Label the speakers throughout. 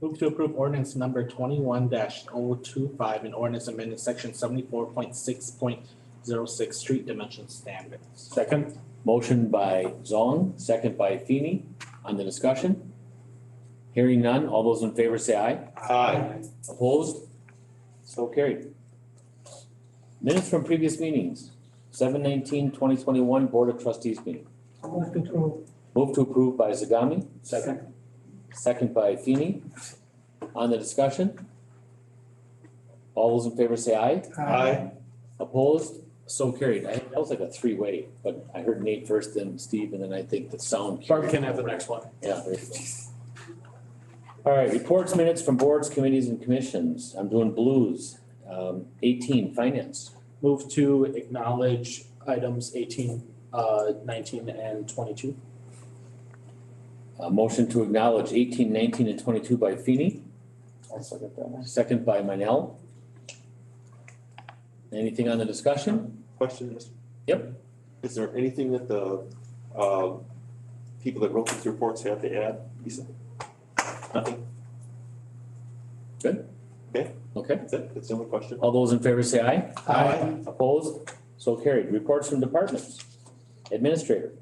Speaker 1: Move to approve ordinance number twenty-one 25 an ordinance amending section seventy-four point six point zero six street dimension standards.
Speaker 2: Second. Motion by Zong, second by Feeny. On the discussion? Hearing none. All those in favor say aye.
Speaker 3: Aye.
Speaker 2: Opposed? So carried. Minutes from previous meetings. 2021 Board of Trustees meeting.
Speaker 3: I'll move to approve.
Speaker 2: Move to approve by Zagami,
Speaker 3: Second.
Speaker 2: second by Feeny. On the discussion? All those in favor say aye.
Speaker 3: Uh, Aye.
Speaker 2: Opposed? So carried. I, that was like a three-way, but I heard Nate first, then Steve, and then I think the sound.
Speaker 4: Barb can have the next one.
Speaker 2: Yeah. there you go. All right, reports, minutes from boards, committees, and commissions. I'm doing blues. Um, eighteen, finance.
Speaker 4: Move to acknowledge items eighteen, uh, nineteen and twenty-two.
Speaker 2: Uh, motion to acknowledge 18, 19, and twenty-two by Feeny. I'll second that one. Second by Manel. Anything on the discussion?
Speaker 5: Question, Mr.
Speaker 2: Yep.
Speaker 5: Is there anything that the, um, people that wrote these reports have to add, Lisa? Nothing,
Speaker 2: Okay.
Speaker 5: that's it, that's the only question.
Speaker 2: All those in favor say aye.
Speaker 4: Aye.
Speaker 2: Opposed? So carried. Reports from departments. Administrator.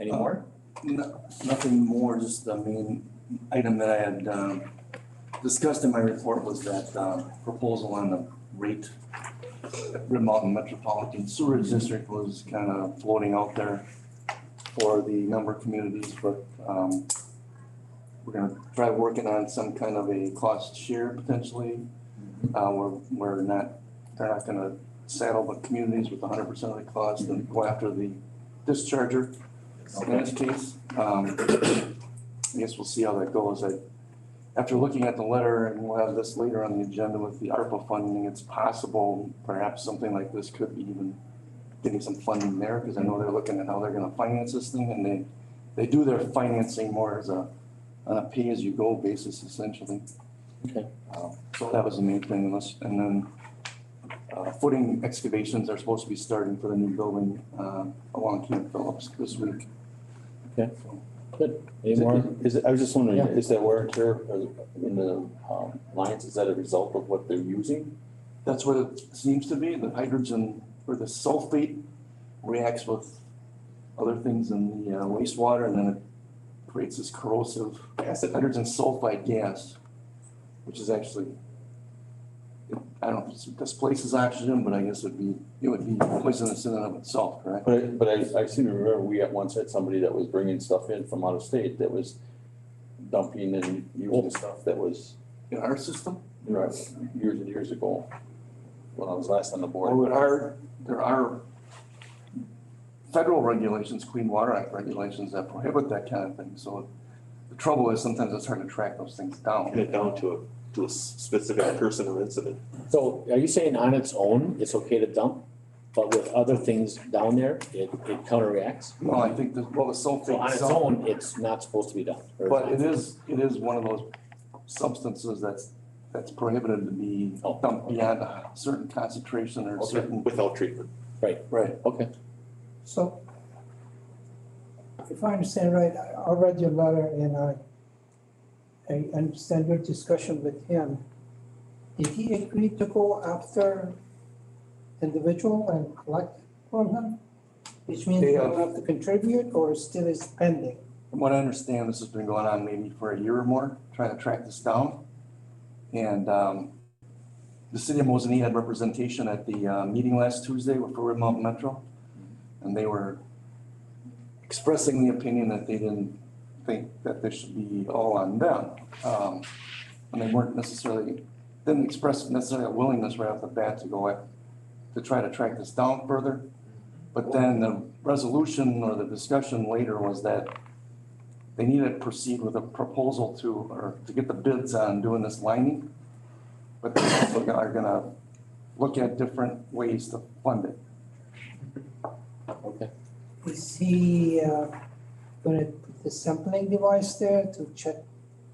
Speaker 2: Any
Speaker 6: Uh,
Speaker 2: more?
Speaker 6: No- Nothing more, just the main item that I had um, discussed in my report was that um, proposal on the rate. that Red Mountain Metropolitan Sewerage District was kind of floating out there for the number of communities, but um, we're gonna try working on some kind of a cost share potentially. Uh, We're, we're not, they're not gonna saddle the communities with hundred percent of the cost and go after the discharger in this case. Um, I guess we'll see how that goes. I, after looking at the letter, and we'll have this later on the agenda with the ARPA funding, it's possible perhaps something like this could be even getting some funding there, because I know they're looking at how they're gonna finance this thing, and they, they do their financing more as a, on a pay-as-you-go basis essentially.
Speaker 2: Okay.
Speaker 6: Um, So that was the main thing, unless, and then, uh, footing excavations are supposed to be starting for the new building, uh, along Camp Phillips this week.
Speaker 2: Any
Speaker 7: Is it-
Speaker 2: more?
Speaker 7: Is it, I was just wondering,
Speaker 2: Yeah.
Speaker 7: is that wear and tear uh, in the um, lines, is that a result of what they're using?
Speaker 6: That's what it seems to be, the hydrogen or the sulfate reacts with other things in the uh, wastewater and then it creates this corrosive acid, hydrogen sulfide gas, which is actually, I don't, know if it displaces oxygen, but I guess it'd be, it would be poisonous in and of itself, correct?
Speaker 7: But I, but I, I seem to remember we at once had somebody that was bringing stuff in from out of state that was dumping and using stuff that was,
Speaker 6: In our system,
Speaker 7: you know, years and years ago, when I was last on the
Speaker 6: or
Speaker 7: board.
Speaker 6: would our, there are federal regulations, Clean Water Act regulations that prohibit that kind of thing, so the trouble is sometimes it's hard to track those things down.
Speaker 5: Get it down to a, to a s- specific person or incident.
Speaker 2: So are you saying on its own, it's okay to dump, but with other things down there, it, it counteracts?
Speaker 6: Well, I think that, well, the sulfate.
Speaker 2: So on its
Speaker 6: itself-
Speaker 2: own, it's not supposed to be dumped. or
Speaker 6: But
Speaker 2: it's
Speaker 6: it is, it is one of those substances that's, that's prohibited to be
Speaker 2: Oh.
Speaker 6: dumped beyond a certain concentration or
Speaker 5: Okay.
Speaker 6: certain.
Speaker 5: Without treatment.
Speaker 6: Right.
Speaker 2: not? Okay,
Speaker 3: So if I understand right, I I read your letter and I, I understand your discussion with him. Did he agree to go after individual and collect from him? Which means
Speaker 6: They
Speaker 3: you
Speaker 6: have-
Speaker 3: don't have to contribute or still is pending?
Speaker 6: From what I understand, this has been going on maybe for a year or more, trying to track this down. And um, the city of Mosinee had representation at the uh, meeting last Tuesday with Red Mountain Metro. And they were expressing the opinion that they didn't think that this should be all on them. Um, And they weren't necessarily, didn't express necessarily a willingness right off the bat to go at, to try to track this down further. But then the resolution or the discussion later was that they need to proceed with a proposal to, or to get the bids on doing this lining. But they also go- are gonna look at different ways to fund it.
Speaker 2: okay.
Speaker 3: Is he uh, gonna put the sampling device there to check,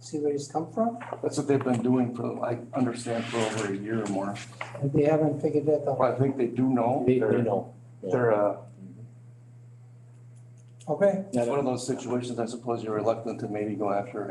Speaker 3: see where it's come from?
Speaker 6: That's what they've been doing for, I understand, for over a year or more.
Speaker 3: And they haven't figured that out.
Speaker 6: But I think they do know.
Speaker 2: They, they
Speaker 6: They're-
Speaker 2: know. yeah.
Speaker 6: They're, uh,
Speaker 3: Okay,
Speaker 6: it's one of those situations, I suppose you're reluctant to maybe go after